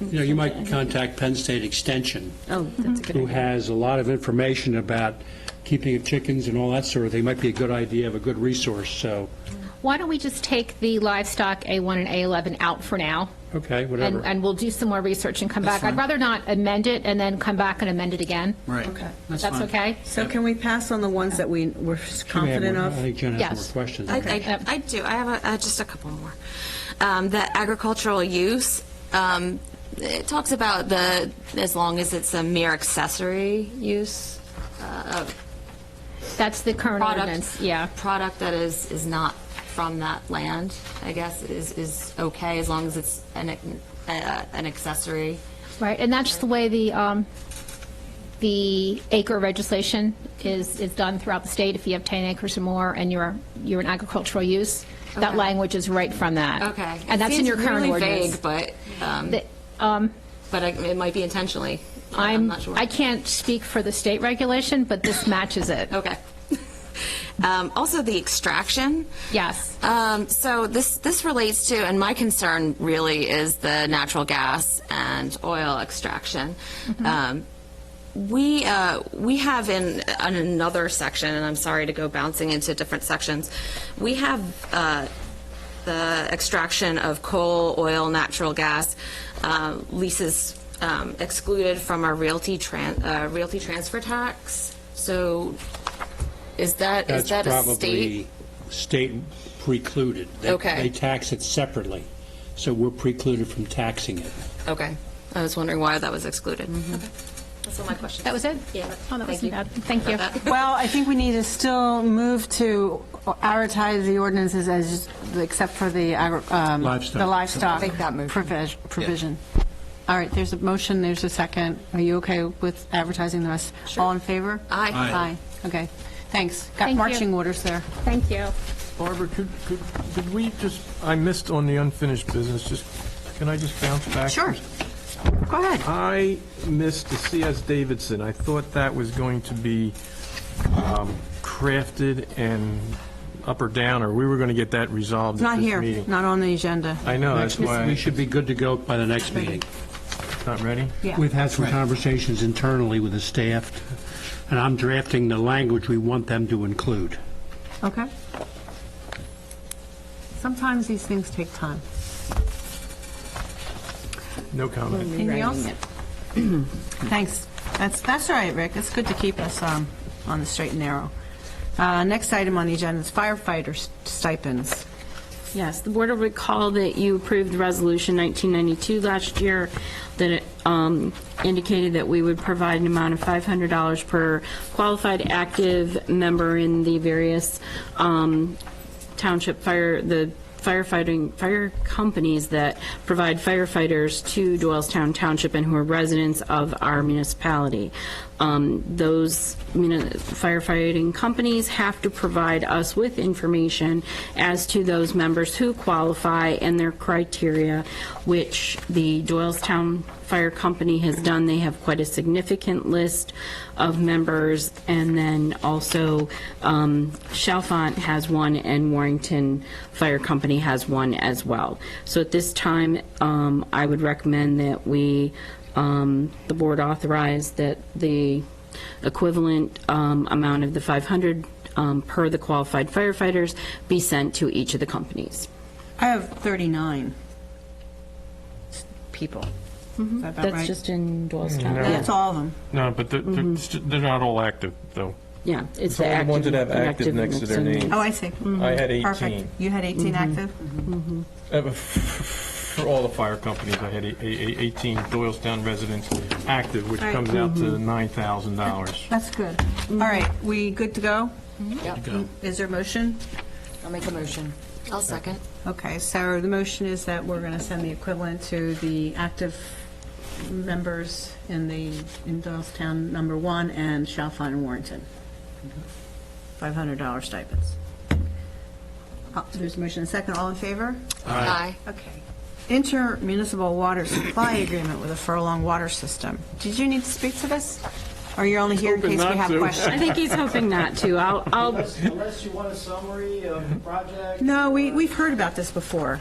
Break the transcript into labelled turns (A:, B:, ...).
A: You know, you might contact Penn State Extension,
B: Oh, that's a good
A: who
B: idea.
A: has a lot of information about keeping of chickens and all that sort of thing. Might be a good idea, of a good resource, so,
C: Why don't we just take the livestock A1 and A11 out for now?
A: okay,
C: And,
A: whatever.
C: and we'll do some more research and come
D: That's
C: back. I'd
D: fine.
C: rather not amend it and then come back and amend it again.
D: Right.
B: Okay.
C: That's
D: fine.
C: okay?
B: So can we pass on the ones that we were
A: She may have
B: confident
A: more-
B: of?
A: I think Jen has
C: Yes.
A: more questions.
E: I,
A: Okay.
C: Yep.
E: I, I do. I have a, uh, just a couple more. Um, the agricultural use. Um, it talks about the as long as it's a mere accessory use uh, of
C: That's the current
E: product.
C: ordinance, yeah.
E: Product that is is not from that land. I guess is is okay as long as it's an ac- uh, an accessory.
C: Right, and that's the way the, um, the acre legislation is, is done throughout the state. If you have 10 acres or more and you're, you're an agricultural use, that
E: Okay.
C: language is right from that.
E: Okay.
C: And that's in your current ordinance.
E: Vague, but um,
C: The- um,
E: but I, it might be intentionally. I'm
C: I'm,
E: not sure.
C: I can't speak for the state regulation, but this matches it.
E: Okay. Um, also, the extraction.
C: Yes.
E: Um, so this this relates to, and my concern really is the natural gas and oil extraction. Um, we uh, we have in, on another section, and I'm sorry to go bouncing into different sections. We have uh, the extraction of coal, oil, natural gas uh, leases um, excluded from our realty tran- uh, realty transfer tax. So is that is
A: That's
E: that a
A: probably
E: state?
A: state precluded. They-
E: Okay.
A: They tax it separately, so we're precluded from taxing it.
E: Okay. I was wondering why that was excluded.
F: Mm-hmm.
E: Okay. That's all my questions.
C: That was it?
E: Yeah.
C: Oh, that
E: Thank
C: wasn't
E: you.
C: bad. Thank you.
B: Well, I think we need to still move to advertise the ordinances as, except for the agri- um,
A: Livestock.
B: the livestock
F: Make that motion.
B: provis- provision. All right, there's a motion, there's a second. Are you okay with advertising the rest? All in favor?
E: Aye.
B: Aye.
E: Aye.
B: Okay, thanks. Got
C: Thank you.
B: marching orders there.
C: Thank you.
G: Barbara, could, could, did we just, I missed on the unfinished business, just, can I just bounce back?
B: Sure. Go ahead.
G: I missed the CS Davidson. I thought that was going to be um, crafted and up or down, or we were going to get that resolved
B: Not
G: at this
B: here,
G: meeting.
B: not on the agenda.
G: I know, that's
A: Next,
G: why
A: We
G: it's
A: should be good to go by the next meeting.
G: not ready.
B: Yeah.
A: We've had some conversations internally with the staff, and I'm drafting the language we want them to include.
B: Okay. Sometimes these things take time.
G: No comment.
B: Anything else? Thanks. That's, that's all right, Rick. It's good to keep us um, on the straight and narrow. Uh, Next item on the agenda is firefighter stipends.
H: Yes, the board will recall that you approved Resolution 1992 last year that
B: Mm-hmm.
H: um, indicated that we would provide an amount of $500 per qualified active member in the various um, township fire, the firefighting, fire companies that provide firefighters to Doylestown Township and who are residents of our municipality. Um, Those muni- firefighting companies have to provide us with information as to those members who qualify and their criteria, which the Doylestown Fire Company has done. They have quite a significant list of members, and then also um, Chalfont has one, and Warrington Fire Company has one as well. So at this time, um, I would recommend that we, um, the board authorize that the equivalent um, amount of the 500 um, per the qualified firefighters be sent to each of the companies.
B: I have 39 s- people. Is that about
H: That's
B: right?
H: just in Doylestown.
B: Mm-hmm. That's all of them.
G: No, but they're,
B: Mm-hmm.
G: they're st- they're not all active, though.
H: Yeah, it's
G: It's
H: the
G: only
H: active.
G: the ones that have active next to their
H: mixed in.
G: name.
B: Oh, I see.
G: I had 18.
B: Perfect. You had 18 active?
G: Uh, For all the fire companies, I had a- a- a- 18 Doylestown residents active, which
B: Right. Mm-hmm.
G: comes out to $9,000.
B: That's good. All right, we good to go? Is there a motion?
F: I'll make a motion.
E: I'll second.
B: Okay, so the motion is that we're going to send the equivalent to the active members in the, in Doylestown number one and Chalfont and Warrington. $500 stipends. Uh, There's a motion and a second, all in favor?
E: Aye.
B: Okay. Intermunicipal water supply agreement with the Furlong Water System. Did you need to speak to this? Or you're only here in case
G: Hoping
B: we
G: not
B: have
G: to.
B: questions?
H: I think he's hoping not to. I'll, I'll
I: Unless you want a summary of the project?
B: No, we, we've heard about this before.